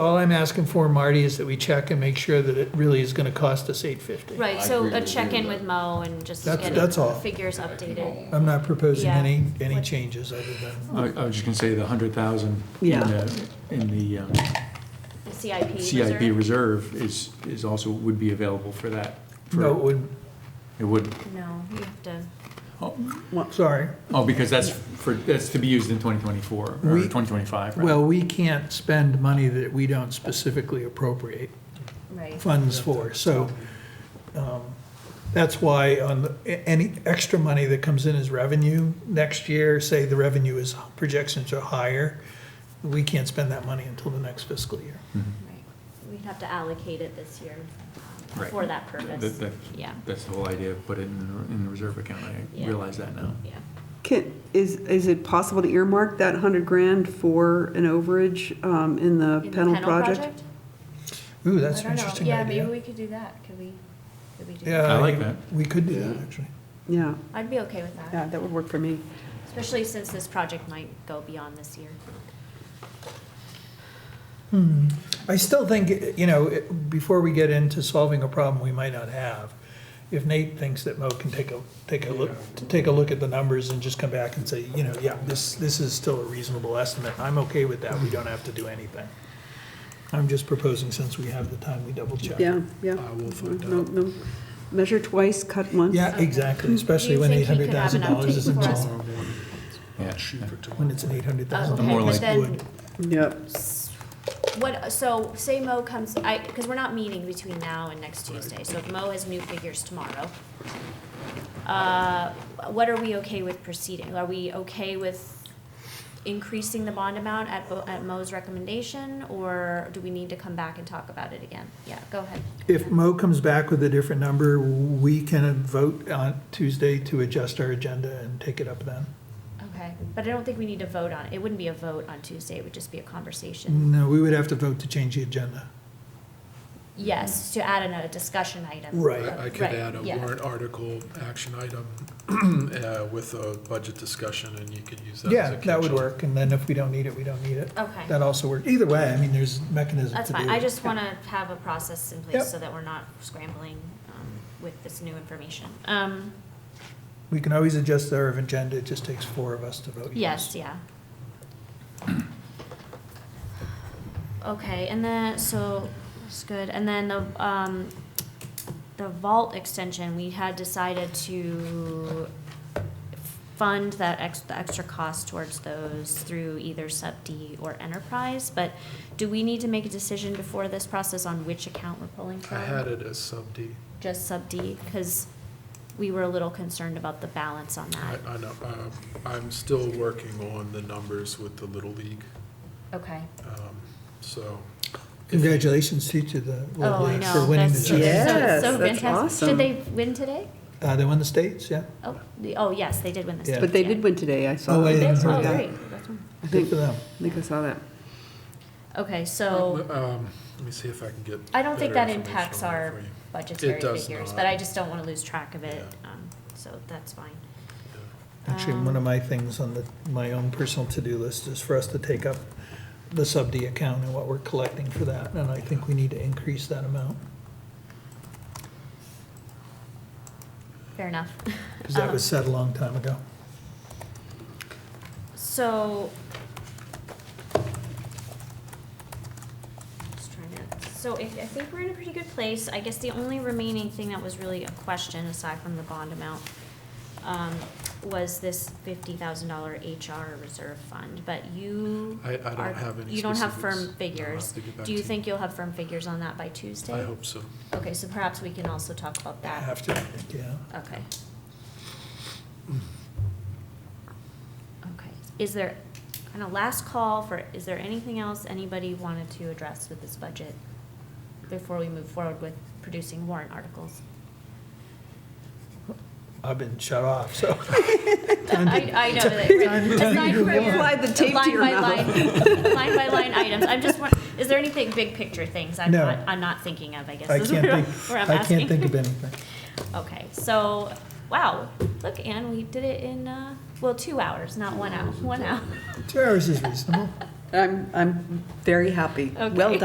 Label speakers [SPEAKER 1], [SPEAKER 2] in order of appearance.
[SPEAKER 1] All I'm asking for, Marty, is that we check and make sure that it really is gonna cost us eight fifty.
[SPEAKER 2] Right,
[SPEAKER 3] I
[SPEAKER 2] so
[SPEAKER 3] agree
[SPEAKER 2] a
[SPEAKER 3] with you
[SPEAKER 2] check-in
[SPEAKER 3] with
[SPEAKER 2] with Mo and just
[SPEAKER 1] That's-
[SPEAKER 2] get
[SPEAKER 1] that's all.
[SPEAKER 2] figures updated.
[SPEAKER 1] I'm not proposing
[SPEAKER 2] Yeah.
[SPEAKER 1] any, any changes other than,
[SPEAKER 4] I, I was just gonna say the hundred thousand in
[SPEAKER 5] Yeah.
[SPEAKER 4] the, in the um,
[SPEAKER 2] The CIP
[SPEAKER 4] CIP
[SPEAKER 2] reserve?
[SPEAKER 4] reserve is, is also, would be available for that. for-
[SPEAKER 1] no, it would,
[SPEAKER 4] It would,
[SPEAKER 2] No, you have to,
[SPEAKER 1] sorry.
[SPEAKER 4] oh, because that's for, that's to be used in twenty twenty-four, or
[SPEAKER 1] We-
[SPEAKER 4] twenty twenty-five, right?
[SPEAKER 1] Well, we can't spend money that we don't specifically appropriate
[SPEAKER 2] right.
[SPEAKER 1] funds for, so, um, that's why on, the- a- any extra money that comes in as revenue next year, say the revenue is, projections are higher, we can't spend that money until the next fiscal year.
[SPEAKER 2] right. We'd have to allocate it this year um,
[SPEAKER 4] Right.
[SPEAKER 2] for that
[SPEAKER 4] That-
[SPEAKER 2] purpose.
[SPEAKER 4] that-
[SPEAKER 2] Yeah,
[SPEAKER 4] That's the whole idea, put it in, the- in the reserve account, I
[SPEAKER 2] Yeah.
[SPEAKER 4] realize that now.
[SPEAKER 2] yeah.
[SPEAKER 5] Can, is, is it possible to earmark that hundred grand for an overage, um, in the
[SPEAKER 2] In the
[SPEAKER 5] Pennell
[SPEAKER 2] Pennell
[SPEAKER 5] project?
[SPEAKER 1] Ooh, that's
[SPEAKER 2] I
[SPEAKER 1] an
[SPEAKER 2] don't know.
[SPEAKER 1] interesting
[SPEAKER 2] Yeah,
[SPEAKER 1] idea.
[SPEAKER 2] maybe we could do that. Could we, could we do that?
[SPEAKER 1] Yeah.
[SPEAKER 4] I like that.
[SPEAKER 1] We could do that,
[SPEAKER 3] Yeah.
[SPEAKER 1] actually.
[SPEAKER 5] Yeah,
[SPEAKER 2] I'd be okay with that,
[SPEAKER 5] yeah, that would work for me.
[SPEAKER 2] especially since this project might go beyond this year.
[SPEAKER 1] Hmm. I still think, you know, it- before we get into solving a problem we might not have, if Nate thinks that Mo can take a, take a look, take a look at the numbers and just come back and say, you know, yeah, this, this is still a reasonable estimate, I'm okay with that, we don't have to do anything. I'm just proposing, since we have the time, we double check.
[SPEAKER 5] Yeah, yeah. No, no, measure twice, cut once.
[SPEAKER 1] Yeah, exactly, especially
[SPEAKER 2] Do Hmm. you
[SPEAKER 1] when eight
[SPEAKER 2] think he
[SPEAKER 1] hundred
[SPEAKER 2] could have
[SPEAKER 1] thousand
[SPEAKER 2] an
[SPEAKER 1] dollars isn't
[SPEAKER 2] update for us?
[SPEAKER 1] small,
[SPEAKER 4] Yeah.
[SPEAKER 1] when it's an eight hundred thousand
[SPEAKER 4] Okay, More
[SPEAKER 1] dollars
[SPEAKER 4] like-
[SPEAKER 2] Then,
[SPEAKER 1] wood.
[SPEAKER 5] Yep.
[SPEAKER 2] what, so say Mo comes, I, because we're not meeting between now and next Tuesday, so if Mo has new figures tomorrow, uh, what are we okay with proceeding? Are we okay with increasing the bond amount at, Bo- at Mo's recommendation, or do we need to come back and talk about it again? Yeah, go ahead.
[SPEAKER 1] If Mo comes back with a different number, we can vote on Tuesday to adjust our agenda and take it up then.
[SPEAKER 2] Okay, but I don't think we need to vote on it. It wouldn't be a vote on Tuesday, it would just be a conversation.
[SPEAKER 1] No, we would have to vote to change the agenda.
[SPEAKER 2] Yes, to add in a discussion item.
[SPEAKER 1] Right.
[SPEAKER 6] I I could
[SPEAKER 2] Right,
[SPEAKER 6] add a
[SPEAKER 2] yeah.
[SPEAKER 6] warrant article, action item, uh, with a budget discussion, and you could use that as a
[SPEAKER 1] Yeah,
[SPEAKER 6] catch-all.
[SPEAKER 1] that would work, and then if we don't need it, we don't need it.
[SPEAKER 2] Okay.
[SPEAKER 1] That also works. Either way, I mean, there's mechanisms to
[SPEAKER 2] That's
[SPEAKER 1] do it.
[SPEAKER 2] fine, I just want to have a process in
[SPEAKER 1] Yep.
[SPEAKER 2] place so that we're not scrambling um, with this new information. Um,
[SPEAKER 1] We can always adjust our agenda, it just takes four of us to vote.
[SPEAKER 2] Yes, yeah. Okay, and then, so, that's good, and then the, um, the vault extension, we had decided to fund that ex, the extra cost towards those through either sub D or enterprise, but do we need to make a decision before this process on which account we're pulling from?
[SPEAKER 6] I had it as sub D.
[SPEAKER 2] just sub D, because we were a little concerned about the balance on
[SPEAKER 6] I,
[SPEAKER 2] that.
[SPEAKER 6] I know, um, I'm still working on the numbers with the Little League,
[SPEAKER 2] Okay.
[SPEAKER 6] um, so.
[SPEAKER 1] Congratulations to you to the
[SPEAKER 2] Oh, I
[SPEAKER 1] Little League
[SPEAKER 2] know.
[SPEAKER 1] for winning the
[SPEAKER 2] That's so-
[SPEAKER 1] championship.
[SPEAKER 5] Yes,
[SPEAKER 2] so
[SPEAKER 5] that's
[SPEAKER 2] fantastic.
[SPEAKER 5] awesome.
[SPEAKER 2] Did they win today?
[SPEAKER 1] Uh, they won the states, yeah?
[SPEAKER 2] Oh, the- oh, yes, they did win this.
[SPEAKER 1] Yeah.
[SPEAKER 5] But they did win today, I saw.
[SPEAKER 1] Oh, I
[SPEAKER 5] that.
[SPEAKER 1] didn't
[SPEAKER 2] Oh,
[SPEAKER 1] heard that.
[SPEAKER 2] great. That's wonderful.
[SPEAKER 5] I
[SPEAKER 1] Good
[SPEAKER 5] think,
[SPEAKER 1] for
[SPEAKER 5] I
[SPEAKER 1] them.
[SPEAKER 5] think I saw that.
[SPEAKER 2] Okay, so
[SPEAKER 6] Um, let me see if I can get.
[SPEAKER 2] I don't think
[SPEAKER 6] better
[SPEAKER 2] that
[SPEAKER 6] information
[SPEAKER 2] impacts
[SPEAKER 6] on that
[SPEAKER 2] our
[SPEAKER 6] for you.
[SPEAKER 2] budgetary
[SPEAKER 6] It does
[SPEAKER 2] figures,
[SPEAKER 6] not.
[SPEAKER 2] but I just don't want to lose track of it, um, so that's fine.
[SPEAKER 1] Actually, one of my things on the, my own personal to-do list is for us to take up the sub D account and what we're collecting for that, and I think we need to increase that amount,
[SPEAKER 2] Fair enough.
[SPEAKER 1] because
[SPEAKER 2] Oh.
[SPEAKER 1] that was said a long time ago.
[SPEAKER 2] So. Just trying to, so I, I think we're in a pretty good place. I guess the only remaining thing that was really a question, aside from the bond amount, um, was this fifty thousand dollar HR reserve fund, but you.
[SPEAKER 6] I, I
[SPEAKER 2] are-
[SPEAKER 6] don't have any.
[SPEAKER 2] You don't have
[SPEAKER 6] specifics.
[SPEAKER 2] firm
[SPEAKER 6] I'll
[SPEAKER 2] figures.
[SPEAKER 6] have to get back
[SPEAKER 2] Do
[SPEAKER 6] to
[SPEAKER 2] you think you'll have firm figures on that by Tuesday?
[SPEAKER 6] I hope so.
[SPEAKER 2] Okay, so perhaps we can also talk about that.
[SPEAKER 1] Have to, yeah.
[SPEAKER 2] Okay. Okay, is there, and a last call for, is there anything else anybody wanted to address with this budget before we move forward with producing warrant articles?
[SPEAKER 1] I've been shut off, so.
[SPEAKER 2] I, I know that, right, aside from your
[SPEAKER 5] Apply the tape to
[SPEAKER 2] line
[SPEAKER 5] your
[SPEAKER 2] by
[SPEAKER 5] mouth.
[SPEAKER 2] line, line by line items, I'm just, won- is there anything, big picture things I'm
[SPEAKER 1] No.
[SPEAKER 2] not, I'm not thinking of, I guess,
[SPEAKER 1] I
[SPEAKER 2] is where
[SPEAKER 1] can't
[SPEAKER 2] I'm
[SPEAKER 1] think,
[SPEAKER 2] where I'm
[SPEAKER 1] I can't
[SPEAKER 2] asking.
[SPEAKER 1] think of anything.
[SPEAKER 2] Okay, so, wow, look, Anne, we did it in, uh, well, two hours, not one hour, one hour.
[SPEAKER 1] Two hours is reasonable.
[SPEAKER 5] I'm, I'm very happy. Well
[SPEAKER 2] Okay.